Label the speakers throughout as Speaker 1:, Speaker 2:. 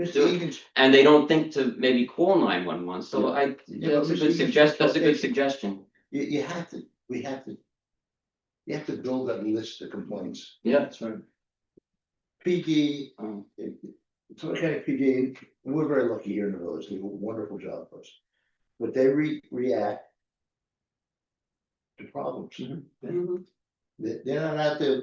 Speaker 1: Mr.
Speaker 2: Do it.
Speaker 1: Egan's
Speaker 2: and they don't think to maybe call nine one one, so I,
Speaker 1: Yeah, but
Speaker 2: that's a
Speaker 1: we
Speaker 2: good
Speaker 1: should-
Speaker 2: suggest, that's a
Speaker 1: okay.
Speaker 2: good suggestion,
Speaker 1: You, you have to, we have to. You have to build that list of complaints.
Speaker 2: yeah, that's right.
Speaker 1: PG,
Speaker 2: Um,
Speaker 1: eh, it's okay, PG, and we're very lucky here in the village, they do a wonderful job for us. But they re- react. To problems, Mm-hmm. they, they're not out there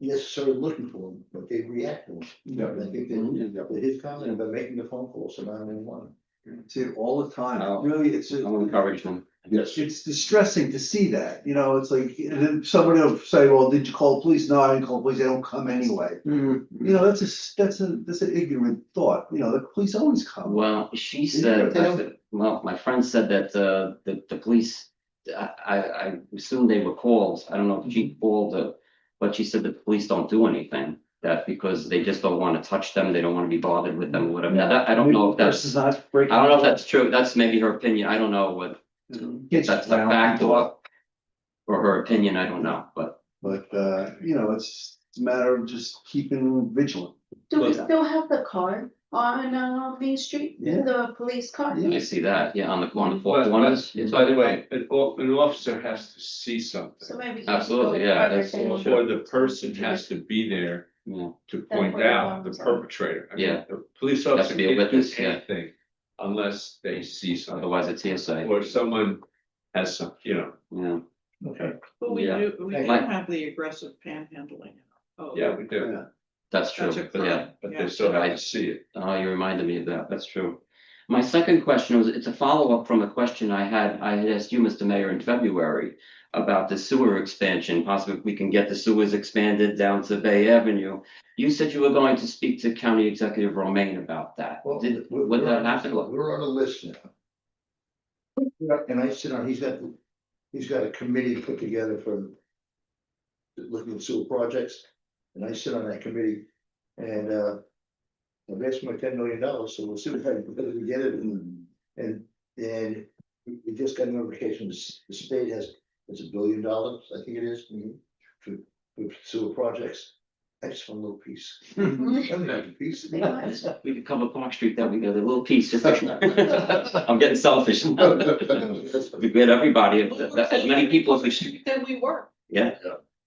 Speaker 1: necessarily looking for them, but they react to them. And I think
Speaker 2: Yeah.
Speaker 1: that, that his comment about making the phone calls to nine one one.
Speaker 3: See it all the time,
Speaker 2: Oh.
Speaker 3: really, it's,
Speaker 2: Mm-hmm. I'll encourage them.
Speaker 1: Yes.
Speaker 3: it's distressing to see that, you know, it's like, and then somebody will say, well, did you call the police? No, I didn't call the police, they don't come anyway.
Speaker 2: Mm-hmm.
Speaker 3: You know, that's a, s- that's a, that's an ignorant thought, you know, the police always come.
Speaker 2: Well, she
Speaker 1: Did you
Speaker 2: said,
Speaker 1: write that
Speaker 2: I said- well, my friend said that uh the the police, I I I assume they were called, I don't know if
Speaker 1: Mm-hmm.
Speaker 2: she called or. But she said that the police don't do anything, that because they just don't wanna touch them, they don't wanna be bothered with them, whatever, Now, that, I don't know if that's,
Speaker 3: This is not
Speaker 2: I
Speaker 3: breaking.
Speaker 2: don't know if that's true, that's maybe her opinion, I don't know what,
Speaker 3: Gets
Speaker 2: that's the
Speaker 3: around
Speaker 2: fact
Speaker 3: people.
Speaker 2: or. Or her opinion, I don't know, but
Speaker 3: But, uh, you know, it's it's a matter of just keeping vigilant.
Speaker 4: Do we
Speaker 2: But-
Speaker 4: still have the car on uh Main Street, the police car?
Speaker 3: Yeah.
Speaker 2: I see that, yeah, on the on the fourth
Speaker 5: But-
Speaker 2: one
Speaker 5: but-
Speaker 2: is. yeah.
Speaker 5: By the way, an o- an officer has to see something,
Speaker 4: So maybe.
Speaker 2: Absolutely, yeah, that's bullshit.
Speaker 5: or the person has to be there
Speaker 2: Yeah.
Speaker 5: to
Speaker 4: That's
Speaker 5: point
Speaker 4: what the
Speaker 5: out the
Speaker 4: laws are.
Speaker 5: perpetrator. I mean,
Speaker 2: Yeah.
Speaker 5: The police
Speaker 2: to be
Speaker 5: officer
Speaker 2: a
Speaker 5: can't do
Speaker 2: witness, yeah.
Speaker 5: anything unless they see something,
Speaker 2: Otherwise, it's hearsay,
Speaker 5: or someone has some, you know,
Speaker 2: yeah.
Speaker 1: Okay.
Speaker 6: But we
Speaker 2: Yeah.
Speaker 6: do, we do
Speaker 2: Like-
Speaker 6: have the aggressive panhandling. Oh,
Speaker 5: yeah, we do,
Speaker 3: Yeah.
Speaker 2: That's true,
Speaker 6: That's a
Speaker 2: but yeah,
Speaker 6: crime.
Speaker 5: but
Speaker 6: Yeah.
Speaker 5: they still have
Speaker 2: I-
Speaker 5: to see it.
Speaker 2: oh, you reminded me of that, that's true. My second question was, it's a follow-up from a question I had, I had asked you, Mr. Mayor, in February. About the sewer expansion, possibly we can get the sewers expanded down to Bay Avenue. You said you were going to speak to County Executive Romaine about that.
Speaker 1: Well,
Speaker 2: Did,
Speaker 1: we're-
Speaker 2: would
Speaker 1: we're
Speaker 2: that
Speaker 1: on-
Speaker 2: happen?
Speaker 1: We're on a list now. Yeah, And I sit on, he's got, he's got a committee put together for looking at sewer projects, and I sit on that committee, and, uh, I've asked my ten million dollars, so we'll see what happens, whether we get it, and, and, and we we just got notification, the s- the state has, it's a billion dollars, I think it is, for, for sewer projects. I just want a little piece. I mean, a piece.
Speaker 2: We could cover Park Street that we got a little piece, just. I'm getting selfish. We get everybody, as many people as we should.
Speaker 6: Then we were,
Speaker 2: Yeah,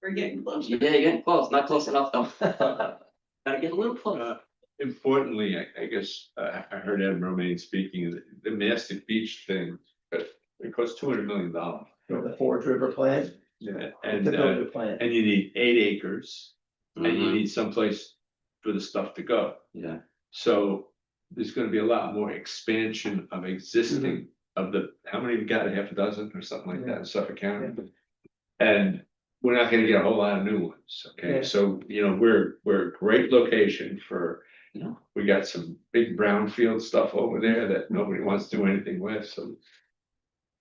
Speaker 6: we're getting close.
Speaker 2: yeah, you're getting close, not close enough though. Gotta get a little close.
Speaker 5: Uh, Importantly, I, I guess, uh, I heard Ed Romaine speaking, the- the Mastic Beach thing, but it costs two hundred million dollars.
Speaker 1: The Forge River plant?
Speaker 5: And,
Speaker 1: To build
Speaker 5: uh,
Speaker 1: the plant.
Speaker 5: and you need eight acres. and you
Speaker 2: Mhm,
Speaker 5: need someplace for the stuff to go.
Speaker 1: mm-hmm.
Speaker 2: Yeah,
Speaker 5: So there's gonna be a lot more expansion of existing of the, how many we got, a half a dozen or something like that in Suffolk County? And we're not gonna get a whole lot of new ones,
Speaker 1: Yeah.
Speaker 5: okay? So, you know, we're, we're a great location for,
Speaker 2: Yeah.
Speaker 5: we got some big brownfield stuff over there that nobody wants to do anything with, so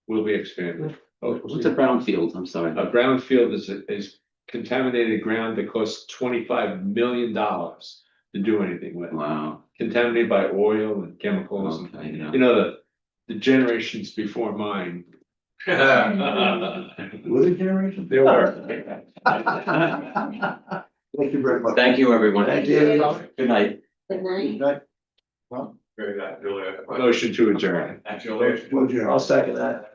Speaker 5: we'll be expanding. Oh,
Speaker 2: what's a brownfield, I'm sorry.
Speaker 5: A brownfield is, is contaminated ground that costs twenty-five million dollars to do anything with.
Speaker 2: Wow,
Speaker 5: Contaminated by oil and chemicals and,
Speaker 2: okay, yeah.
Speaker 5: you know, the, the generations before mine. There
Speaker 1: Would generation?
Speaker 5: were.
Speaker 3: Thank you very much.
Speaker 2: Thank you, everyone.
Speaker 1: Thank you.
Speaker 2: Good night.
Speaker 4: Good night.
Speaker 1: Well,
Speaker 5: Motion to adjourn.
Speaker 1: would you-
Speaker 3: I'll second that.